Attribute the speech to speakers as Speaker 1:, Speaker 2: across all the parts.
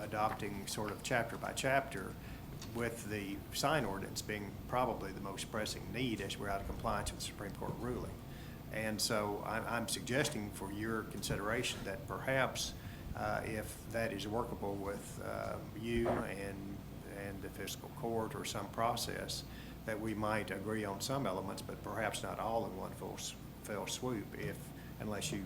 Speaker 1: adopting sort of chapter by chapter with the sign ordinance being probably the most pressing need as we're out of compliance with the Supreme Court ruling. And so I'm, I'm suggesting for your consideration that perhaps uh, if that is workable with uh, you and, and the fiscal court or some process, that we might agree on some elements, but perhaps not all in one full, s- fell swoop if, unless you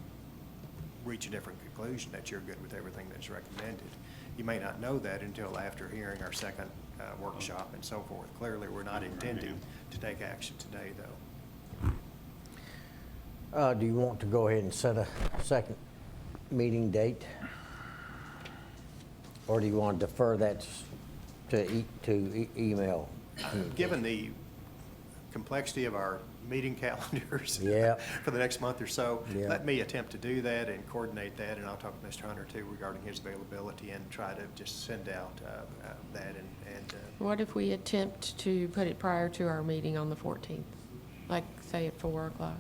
Speaker 1: reach a different conclusion that you're good with everything that's recommended. You may not know that until after hearing our second uh, workshop and so forth. Clearly, we're not intending to take action today, though.
Speaker 2: Uh, Do you want to go ahead and set a second meeting date? Or do you want to defer that to e- to e- email?
Speaker 1: Given the complexity of our meeting calendars
Speaker 2: Yeah.
Speaker 1: for the next month or so,
Speaker 2: Yeah.
Speaker 1: let me attempt to do that and coordinate that, and I'll talk to Mr. Hunter too regarding his availability and try to just send out uh, uh, that and, and uh,
Speaker 3: What if we attempt to put it prior to our meeting on the 14th? Like, say at 4 o'clock?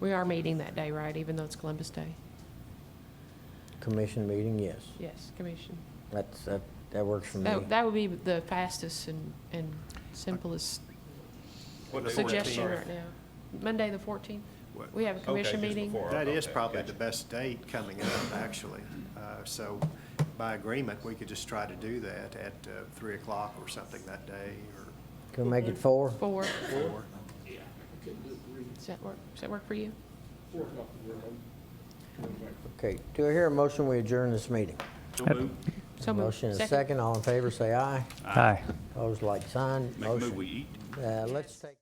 Speaker 3: We are meeting that day, right, even though it's Columbus Day?
Speaker 2: Commission meeting, yes.
Speaker 3: Yes, Commission.
Speaker 2: That's, that that works for me.
Speaker 3: That, that would be the fastest and, and simplest
Speaker 4: What day works
Speaker 3: suggestion
Speaker 4: for you?
Speaker 3: right now. Monday, the 14th?
Speaker 1: What-
Speaker 3: We have a commission
Speaker 4: Okay, just
Speaker 3: meeting?
Speaker 4: before.
Speaker 1: That is
Speaker 4: Okay,
Speaker 1: probably
Speaker 4: gotcha.
Speaker 1: the best date coming up, actually. Uh, So by agreement, we could just try to do that at uh, 3 o'clock or something that day or
Speaker 2: Can we make it four?
Speaker 3: 4.
Speaker 1: 4.
Speaker 3: Does that work, does that work for you?
Speaker 2: Okay, do I hear a motion, we adjourn this meeting?
Speaker 4: So moved.
Speaker 3: So moved.
Speaker 2: Motion is second, all in favor, say aye.
Speaker 5: Aye.
Speaker 2: Opposed, like sign.
Speaker 4: Make a move,
Speaker 2: Motion.
Speaker 4: we eat.
Speaker 2: Uh, Let's take.